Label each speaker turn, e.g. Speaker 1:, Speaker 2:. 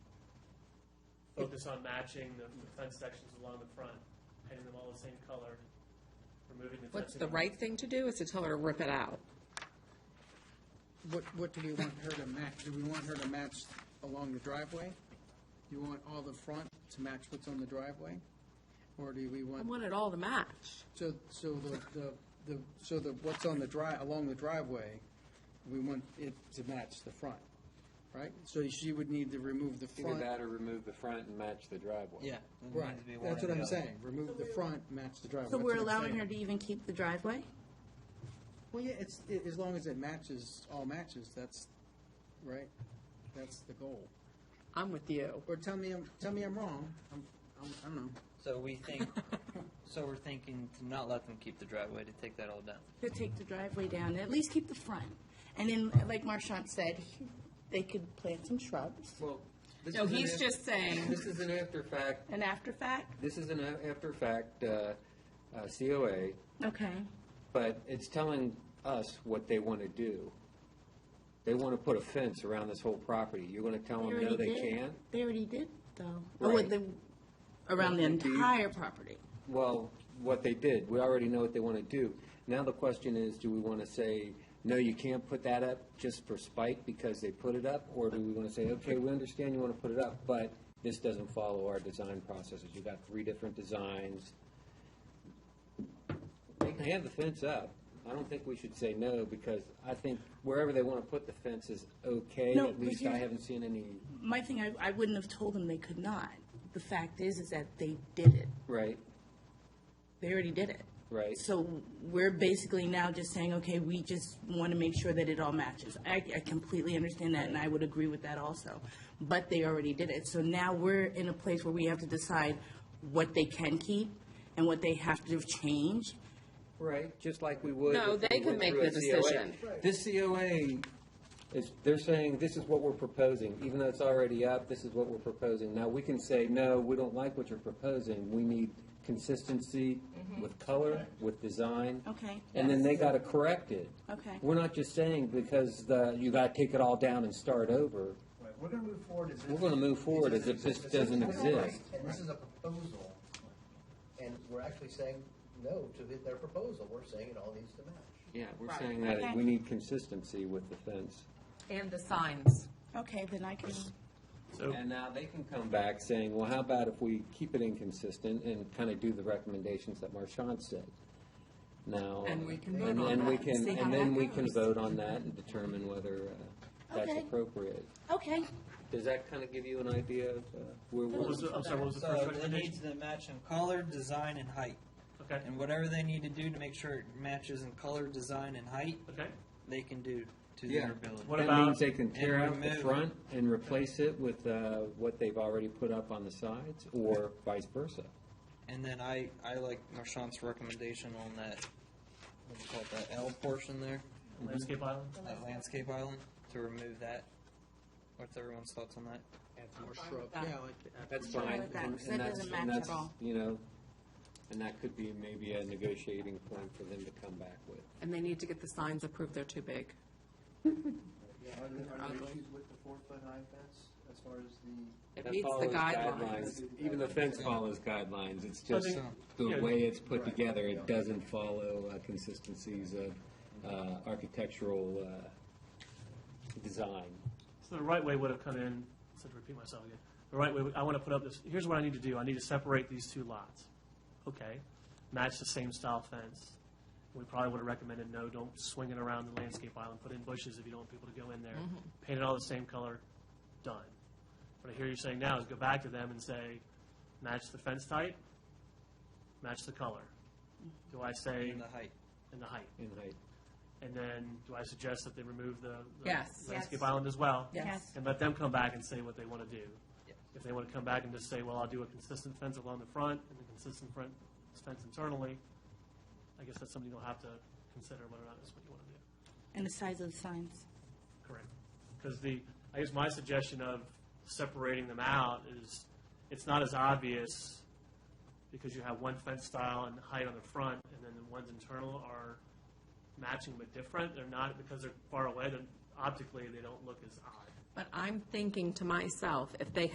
Speaker 1: focus on matching the the fence sections along the front, painting them all the same color, removing the fencing.
Speaker 2: What's the right thing to do is to tell her to rip it out.
Speaker 3: What, what do we want her to match? Do we want her to match along the driveway? Do you want all the front to match what's on the driveway? Or do we
Speaker 2: I
Speaker 3: want,
Speaker 2: want it all to match.
Speaker 3: so, so the, the, the, so the, what's on the dri, along the driveway, we want it to match the front, right? So she would need to remove the
Speaker 4: Either
Speaker 3: front.
Speaker 4: that or remove the front and match the driveway.
Speaker 3: Yeah, right. That's what I'm saying. Remove the front, match the driveway.
Speaker 5: So
Speaker 3: That's
Speaker 5: we're
Speaker 3: what I'm
Speaker 5: allowing
Speaker 3: saying.
Speaker 5: her to even keep the driveway?
Speaker 3: Well, yeah, it's, i as long as it matches, all matches, that's, right? That's the goal.
Speaker 2: I'm with you.
Speaker 3: Or tell me, I'm tell me I'm wrong. I'm, I'm, I don't know.
Speaker 6: So we think, so we're thinking to not let them keep the driveway, to take that all down.
Speaker 5: To take the driveway down, at least keep the front. And then, like Marchant said, he- they could plant some shrubs.
Speaker 4: Well, this
Speaker 2: No,
Speaker 4: is an
Speaker 2: he's
Speaker 4: af-
Speaker 2: just saying,
Speaker 4: This is an after fact,
Speaker 5: And after fact?
Speaker 4: this is an a- after fact, uh, uh, COA,
Speaker 5: Okay.
Speaker 4: but it's telling us what they want to do. They want to put a fence around this whole property. You're going to tell them, Oh, no,
Speaker 5: already
Speaker 4: they
Speaker 5: did.
Speaker 4: can't?
Speaker 5: They already did, though. Oh,
Speaker 4: Right.
Speaker 5: and the, around the entire property.
Speaker 4: Well, what they did, we already know what they want to do. Now the question is, do we want to say, no, you can't put that up just for spite because they put it up? Or do we want to say, okay, we understand you want to put it up, but this doesn't follow our design processes. You've got three different designs. They can have the fence up. I don't think we should say no because I think wherever they want to put the fence is okay.
Speaker 5: No,
Speaker 4: At
Speaker 5: but
Speaker 4: least
Speaker 5: you-
Speaker 4: I haven't seen any,
Speaker 5: My thing, I, I wouldn't have told them they could not. The fact is, is that they did it.
Speaker 4: right?
Speaker 5: They already did it.
Speaker 4: Right.
Speaker 5: So we're basically now just saying, okay, we just want to make sure that it all matches. I, I completely understand that, and I would agree with that also. But they already did it. So now we're in a place where we have to decide what they can keep and what they have to change.
Speaker 4: Right, just like we would.
Speaker 2: No,
Speaker 4: if we
Speaker 2: they can
Speaker 4: went
Speaker 2: make
Speaker 4: through
Speaker 2: the
Speaker 4: a COA.
Speaker 2: decision.
Speaker 4: This COA is, they're saying, this is what we're proposing, even though it's already up, this is what we're proposing. Now, we can say, no, we don't like what you're proposing, we need consistency
Speaker 2: Mm-hmm.
Speaker 4: with color, with design.
Speaker 5: Okay.
Speaker 4: And then they gotta correct it.
Speaker 5: Okay.
Speaker 4: We're not just saying because the, you gotta take it all down and start over.
Speaker 7: Right, We're gonna move forward as if.
Speaker 4: We're gonna move forward as if this doesn't exist.
Speaker 7: And this is a proposal, and we're actually saying no to hit their proposal, we're saying it all needs to match.
Speaker 4: Yeah, we're
Speaker 2: Right,
Speaker 4: saying that
Speaker 5: okay.
Speaker 4: we need consistency with the fence.
Speaker 2: and the signs.
Speaker 5: Okay, then I can,
Speaker 1: So-
Speaker 4: And now they can come back saying, well, how about if we keep it inconsistent and kind of do the recommendations that Marchand said? Now.
Speaker 2: And we can
Speaker 4: and-
Speaker 2: vote on
Speaker 4: and we
Speaker 2: that,
Speaker 4: can-
Speaker 5: see how
Speaker 4: And then
Speaker 5: that
Speaker 4: we can
Speaker 5: goes.
Speaker 4: vote on that and determine whether uh, that's
Speaker 5: Okay.
Speaker 4: appropriate.
Speaker 5: okay.
Speaker 4: Does that kind of give you an idea of uh, where
Speaker 1: What
Speaker 4: we're?
Speaker 1: was the, I'm sorry, what was the first
Speaker 6: So it needs
Speaker 1: recommendation?
Speaker 6: to match in color, design, and height.
Speaker 1: Okay,
Speaker 6: And whatever they need to do to make sure it matches in color, design, and height,
Speaker 1: okay.
Speaker 6: they can do to
Speaker 4: Yeah.
Speaker 6: their ability.
Speaker 1: What
Speaker 4: That
Speaker 1: about-
Speaker 4: means they can tear
Speaker 6: And
Speaker 4: out the
Speaker 6: remove.
Speaker 4: front and replace it with uh, what they've already put up on the sides or vice versa.
Speaker 6: And then I, I like Marchand's recommendation on that, what do you call it, that L portion there,
Speaker 1: Landscape island?
Speaker 6: that landscape island, to remove that. What's everyone's thoughts on that?
Speaker 3: Add some more shrub.
Speaker 2: that.
Speaker 3: Yeah, like, add
Speaker 4: That's
Speaker 5: Sure,
Speaker 4: fine.
Speaker 5: with that,
Speaker 4: and-
Speaker 5: 'cause
Speaker 4: and
Speaker 5: that
Speaker 4: that's-
Speaker 5: doesn't
Speaker 4: and
Speaker 5: match at
Speaker 4: that's,
Speaker 5: all.
Speaker 4: You know, and that could be maybe a negotiating point for them to come back with.
Speaker 2: And they need to get the signs approved, they're too big.
Speaker 7: Are there, are there issues with the four-foot high fence as far as the?
Speaker 2: It
Speaker 4: That
Speaker 2: meets the
Speaker 4: follows
Speaker 2: guidelines.
Speaker 4: Even the fence follows guidelines, it's
Speaker 1: I
Speaker 4: just
Speaker 1: think- yeah.
Speaker 4: the way it's put together, it doesn't follow uh, consistencies of uh, architectural uh, design.
Speaker 1: So the right way would have come in, I said to repeat myself again, the right way, would- I want to put up this, here's what I need to do, I need to separate these two lots. Okay, match the same style fence. We probably would have recommended, no, don't swing it around the landscape island, put in bushes if you don't want people to go in there.
Speaker 2: Mm-hmm.
Speaker 1: Paint it all the same color, done. What I hear you saying now is go back to them and say, match the fence type, match the color.
Speaker 2: Mm-hmm.
Speaker 1: Do I say,
Speaker 6: And the height.
Speaker 1: and the height?
Speaker 4: in height.
Speaker 1: And then, do I suggest that they remove the the
Speaker 2: Yes.
Speaker 1: landscape island as well?
Speaker 5: Yes.
Speaker 1: And let them come back and say what they want to do.
Speaker 6: Yes.
Speaker 1: If they want to come back and just say, well, I'll do a consistent fence along the front and a consistent front fence internally, I guess that's something you'll have to consider whether or not that's what you want to do.
Speaker 5: And the size of the signs.
Speaker 1: Correct. Because the, I guess my suggestion of separating them out is, it's not as obvious because you have one fence style and height on the front, and then the ones internal are matching but different. They're not, because they're far away, then optically, they don't look as odd.
Speaker 2: But I'm thinking to myself, if they